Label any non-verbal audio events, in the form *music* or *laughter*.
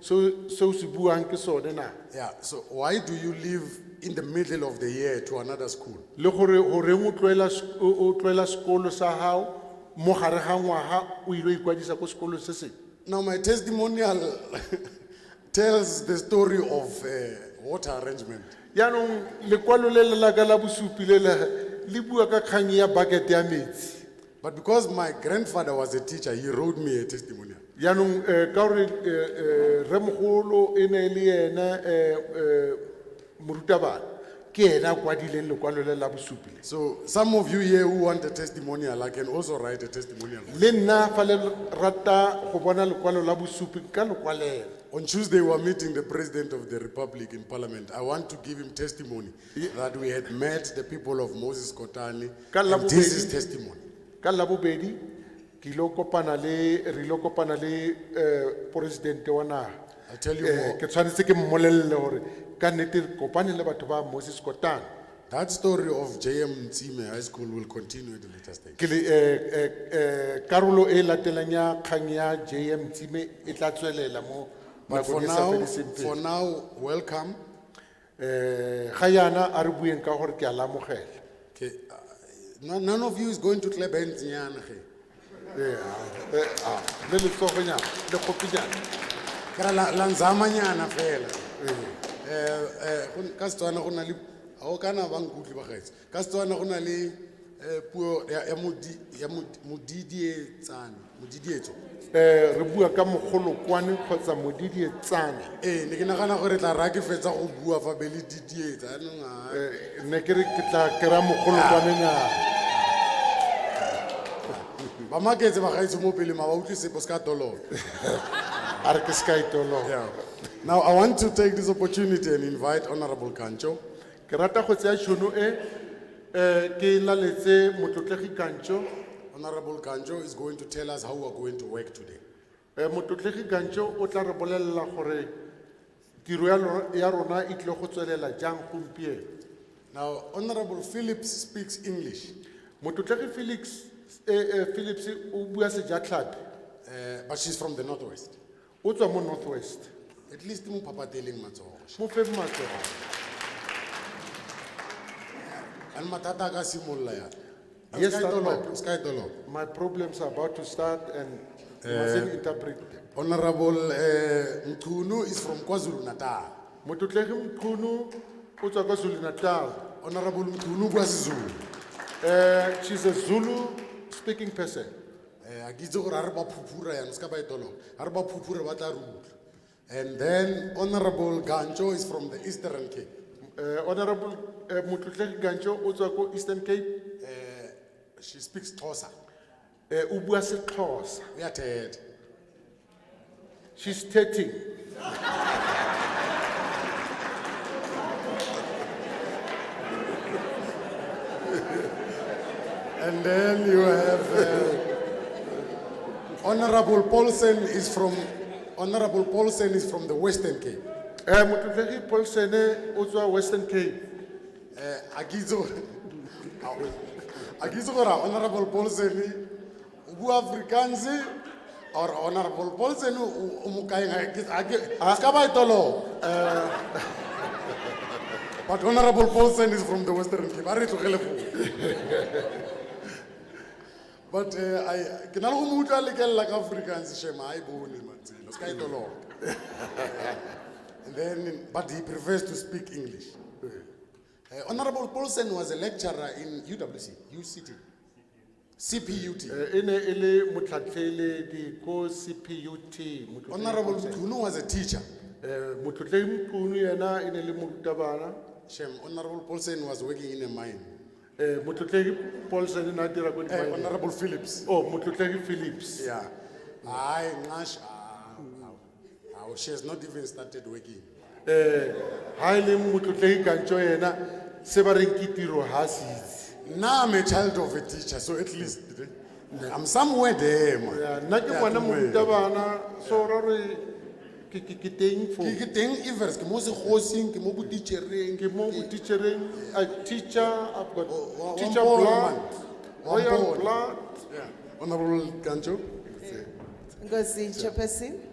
seo seo se buang ke sone na Yeah, so why do you leave in the middle of the year to another school? le gore goreng o tloela s- o o tloela sekolo sa gago mo gare ga ngwaga o ile o ikwadisa ko sekolo se seng Now, my testimonial *laughs* tells the story of uh, water arrangement. yaanong lekwalo le le laka la bosupi le le le bua ka kgang ya bakete ya metsi But because my grandfather was a teacher, he wrote me a testimonial. yaanong um ka gore um remogolo e ne le ena um morutabana ke ena a kwadileng lekwalo le la bosupi le So, some of you here who want a testimonial, I can also write a testimonial. le nna fa le rata go bona lekwalo la bosupi ka lekwalela On Tuesday, we are meeting the President of the Republic in Parliament. I want to give him testimony that we had met the people of Moses Kotani. Ka la And this bobedi. is testimony. ka labobedi ke ile go kopana le re ile go kopana le um poresidente wa naga I'll tell you Eh, more. ke tshwanetse ke mmolelele gore ka nnete re kopane le batho ba moses kotane That story of JM Mtsime High School will continue at a later stage. ke le- eh, eh, eh, karolo e latelang ya kgang ya jm tsime e tla tswelela mo But for nakong e sa now, fediseng for pelo now, welcome. um ga yana a re bueng ka gore ke a lamogela Okay. uh, no- None of you is going to clap hands, nyana, ge. Eh, ah, eh, ah, le letsogonyana le kgopinyana Kra la- la nzama nyana fela. Eh, eh, go- ka Setswana go na le- ha o kana ba nkutlwe bagaetsho. Ka Setswana go na le, eh, puo ya- ya modi- ya mod- modidietsane, modidietso. um re bua ka mogolokwane kgotsa e modidietsane Eh, ne ke nagana gore tla raya ke fetsa go bua fa be le didietsa, yanong ha- Eh, ne ke re ke tla kry-a mogolokwanenyana ba maketse bagaetsho mo pele ma ba utlwe sepe, o se ka toloba. a re ke se ka etologa Yeah. Now, I want to take this opportunity and invite Honorable Kancho. ke rata go tseya tšhono e um ke laletse motlotlegi kantšo Honorable Kancho is going to tell us how we are going to work today. um motlotlegi kantšo o tla re bolelela gore tiro ya lo- ya rona e tlile go tswelela jang gompieno Now, Honorable Phillips speaks English, motlotlegi felix eh, eh, philips o bua sejatlhapi uh, but she's from the Northwest. o tswa mo north west At least mo papateleng matsogo. mo feng matsogo And matata a ka simolola yana. And Yes, Sky that's Dolop, right. Sky Dolop. my problems are about to start and you mustn't interpret them Honorable uh, Mkunu is from KwaZulu Natal. motlotlegi mqunu o tswa kwa zulu natal Honorable Mkunu bua Sezulu. Uh, she's a Zulu speaking person. Eh, a ke itse gore a re ba phuphura yana, se ka ba e toloba. A re ba phuphura ba tla re utlwa. And then Honorable Gancho is from the Eastern Cape. Uh, Honorable uh, Mutlutleki Gancho, Otswako Eastern Cape, She speaks Tosa. uh, Ubua Setlosa. We are tired. She's 13. And then you have uh, Honorable Paulsen is from Honorable Paulsen is from the Western Cape. Uh, Mutlutleki Paulsene, Otswa Western Cape. Eh, a ke itse gore- a ke itse gore Honorable Paulsen o bua Afrikaans or Honorable Paulsen o o mo kae ga ke- a ke- se ka ba e toloba. But Honorable Paulsen is from the Western Cape. A re e tlogele foo. But eh, I ke na le go mo utlwa lekelela ka Afrikaans shema ha e bone matsela. Se ka e toloba. And then but he prefers to speak English. Uh, Honorable Paulsen was a lecturer in UWC, UCT, CPUT. Uh, Ene ele mutlatlele di ko CPUT. Mutlutleki Honorable Paulsen. Tunu was a teacher. Uh, Mutlutleki Mqunu yena ene le murutabana. Shem, Honorable Paulsen was working in a mine. Uh, Mutlutleki Paulsene na dira ko di Eh, Honorable Phillips. Oh, Mutlutleki Phillips. Yeah. I, Nash, ah, ah, ah, she has not even started working. Ha e ele Mutlutleki Gancho yena, se ba reng ke tiro ha se itse. Now I'm a child of a teacher, so at least eh, I'm somewhere there, man. Yeah, nna Ya, ke ngwana morutabana so ra re ke ke- ke teng fo Ke ke teng Evers, ke mo sekgosing, ke mo botitjhereng, ke mo teachereng a teacher i've got wa- Oh, wa teacher mpona, blood man. Wa royal mpona. blood Yeah. Honorable Gancho. Ngozi Chairperson,